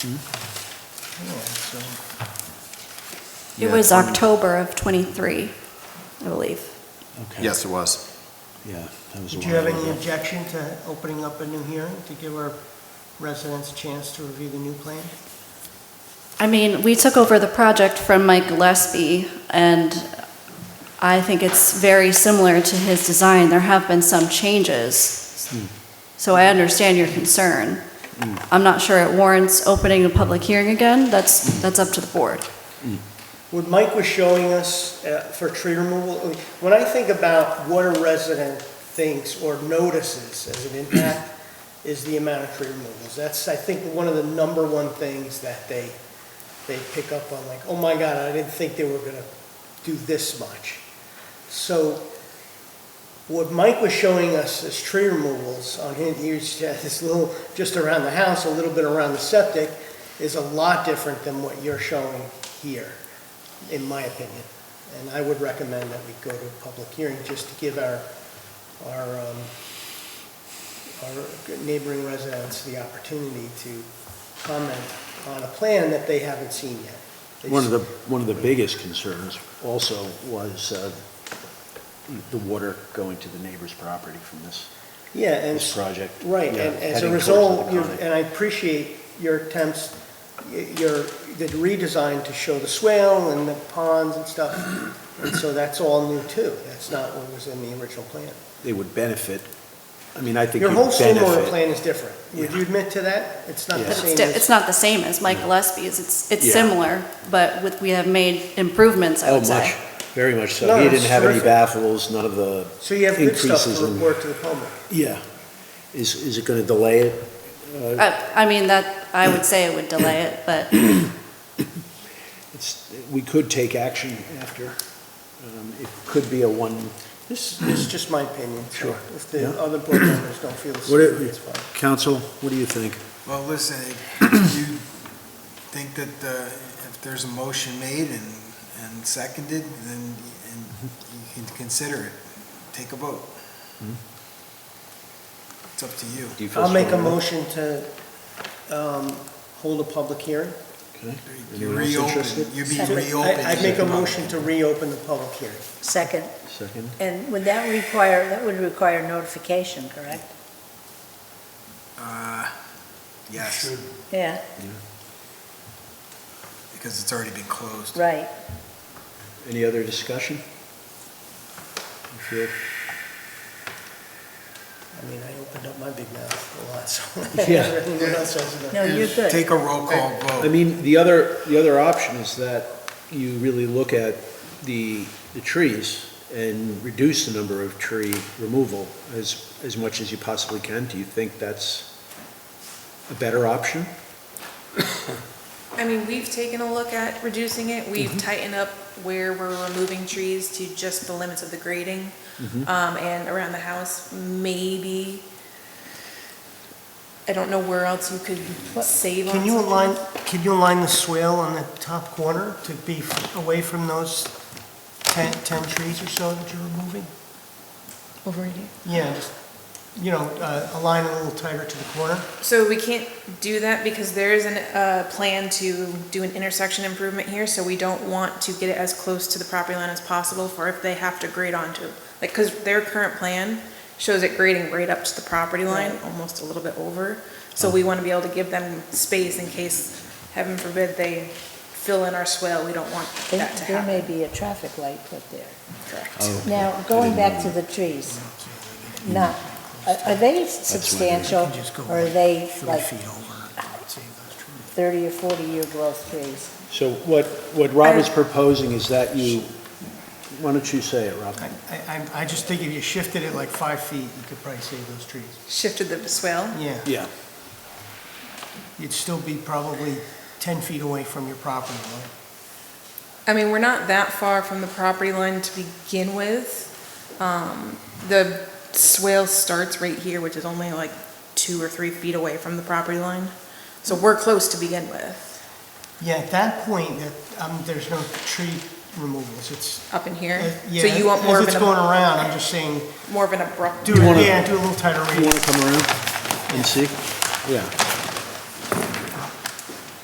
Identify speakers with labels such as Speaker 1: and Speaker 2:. Speaker 1: It
Speaker 2: Yeah,
Speaker 1: was
Speaker 2: twenty-
Speaker 1: October of '23, I believe.
Speaker 3: Okay.
Speaker 2: Yes, it was.
Speaker 3: Yeah, that was a
Speaker 4: Would
Speaker 3: while
Speaker 4: you have any
Speaker 3: ago.
Speaker 4: objection to opening up a new hearing to give our residents a chance to review the new plan?
Speaker 1: I mean, we took over the project from Mike Gillespie, and I think it's very similar to his design. There have been some changes, so I understand your concern. I'm not sure it warrants opening a public hearing again. That's, that's up to the board.
Speaker 4: What Mike was showing us uh, for tree removal, I mean, when I think about what a resident thinks or notices as an impact, is the amount of tree removals. That's, I think, one of the number one things that they, they pick up on, like, oh my God, I didn't think they were gonna do this much. So what Mike was showing us as tree removals on his, he was just- this little, just around the house, a little bit around the septic, is a lot different than what you're showing here in my opinion. And I would recommend that we go to a public hearing just to give our, our, um, our neighboring residents the opportunity to comment on a plan that they haven't seen yet. They
Speaker 3: One of the, one of the biggest concerns also was uh, the water going to the neighbor's property from this,
Speaker 4: Yeah, and.
Speaker 3: this project.
Speaker 4: Right,
Speaker 3: Yeah,
Speaker 4: and as a
Speaker 3: heading towards
Speaker 4: result,
Speaker 3: the
Speaker 4: you-
Speaker 3: county.
Speaker 4: and I appreciate your attempts, y- your, the redesign to show the swale and the ponds and stuff. And so that's all new too. That's not what was in the original plan.
Speaker 3: They would benefit, I mean, I think
Speaker 4: Your
Speaker 3: you'd
Speaker 4: whole stormwater
Speaker 3: benefit.
Speaker 4: plan is different. Would you admit to that? It's not the
Speaker 3: Yeah.
Speaker 1: But it's,
Speaker 4: same
Speaker 1: di-
Speaker 4: as.
Speaker 1: it's not the same as Mike Gillespie's. It's, it's
Speaker 3: Yeah.
Speaker 1: similar, but with, we have made improvements, I
Speaker 3: Oh,
Speaker 1: would say.
Speaker 3: much, very much so.
Speaker 4: No,
Speaker 3: He
Speaker 4: it's
Speaker 3: didn't have any
Speaker 4: terrific.
Speaker 3: baffles, none of the,
Speaker 4: So you have good stuff
Speaker 3: increases
Speaker 4: to
Speaker 3: in-
Speaker 4: report to the public.
Speaker 3: yeah. Is, is it going to delay it?
Speaker 1: Uh, I, I mean, that, I would say it would delay it, but
Speaker 3: It's, we could take action after. Um, It could be a one,
Speaker 4: This this is just my opinion. so
Speaker 3: Sure.
Speaker 4: If the
Speaker 3: Yeah.
Speaker 4: other board members don't feel the
Speaker 3: what,
Speaker 4: same,
Speaker 3: do-
Speaker 4: it's fine.
Speaker 3: council, what do you think?
Speaker 5: Well, listen, if you think that uh, if there's a motion made and, and seconded, then and you can consider it, take a vote.
Speaker 3: Hmm?
Speaker 5: It's up to you.
Speaker 3: Do you feel
Speaker 4: I'll make a
Speaker 3: strongly?
Speaker 4: motion to um, hold a public hearing.
Speaker 3: Okay.
Speaker 5: You
Speaker 3: Anyone else
Speaker 5: reopen,
Speaker 3: interested?
Speaker 5: you'd be
Speaker 4: So
Speaker 5: reopened.
Speaker 4: I- I'd make a motion to reopen the public hearing.
Speaker 6: Second,
Speaker 3: Second?
Speaker 6: and would that require, that would require notification, correct?
Speaker 5: Uh, Yes,
Speaker 6: Yeah,
Speaker 5: because it's already been closed.
Speaker 6: right.
Speaker 3: Any other discussion? You feel-
Speaker 4: I mean, I opened up my big mouth a lot, so.
Speaker 3: Yeah.
Speaker 4: Everyone else has a-
Speaker 6: No, you're good.
Speaker 5: Take a roll call
Speaker 3: I
Speaker 5: vote.
Speaker 3: mean, the other, the other option is that you really look at the, the trees and reduce the number of tree removal as, as much as you possibly can. Do you think that's a better option?
Speaker 7: I mean, we've taken a look at reducing it, we've tightened up where we're removing trees to just the limits of the grading, um, and around the house, maybe. I don't know where else you could save on
Speaker 4: Can you
Speaker 7: something.
Speaker 4: align, can you align the swale on the top corner to be f- away from those 10 10 trees or so that you're removing?
Speaker 7: Over here.
Speaker 4: Yeah, just, you know, uh, align it a little tighter to the corner.
Speaker 7: So we can't do that because there is an, uh, plan to do an intersection improvement here, so we don't want to get it as close to the property line as possible for if they have to grade onto. Like, cause their current plan shows it grading right up to the property line, almost a little bit over. So we wanna be able to give them space in case, heaven forbid, they fill in our swale, we don't want
Speaker 6: There
Speaker 7: that to
Speaker 6: there may
Speaker 7: happen. Oh.
Speaker 6: be a traffic light put there.
Speaker 7: Correct.
Speaker 6: Now, going back to the trees, now, are are they substantial,
Speaker 4: You just go
Speaker 6: or are
Speaker 4: like
Speaker 6: they
Speaker 4: three
Speaker 6: like
Speaker 4: feet over, save those trees.
Speaker 6: 30 or 40-year growth trees?
Speaker 3: So what, what Rob is proposing is that you, why don't you say it, Rob?
Speaker 4: I, I, I just think if you shifted it like five feet, you could probably save those trees.
Speaker 7: Shifted the swale.
Speaker 4: Yeah,
Speaker 3: Yeah.
Speaker 4: you'd still be probably 10 feet away from your property line.
Speaker 7: I mean, we're not that far from the property line to begin with. Um, The swale starts right here, which is only like two or three feet away from the property line. So we're close to begin with,
Speaker 4: Yeah, at that point, that, um, there's no tree removals, it's,
Speaker 7: up in
Speaker 4: uh,
Speaker 7: here.
Speaker 4: yeah.
Speaker 7: So you want more
Speaker 4: As
Speaker 7: of
Speaker 4: it's
Speaker 7: an,
Speaker 4: going
Speaker 7: ab-
Speaker 4: around, I'm just saying,
Speaker 7: more of an abrupt.
Speaker 4: do it,
Speaker 3: wanna-
Speaker 4: yeah, do a little tighter
Speaker 3: You
Speaker 4: radius.
Speaker 3: want to come around and see? Yeah.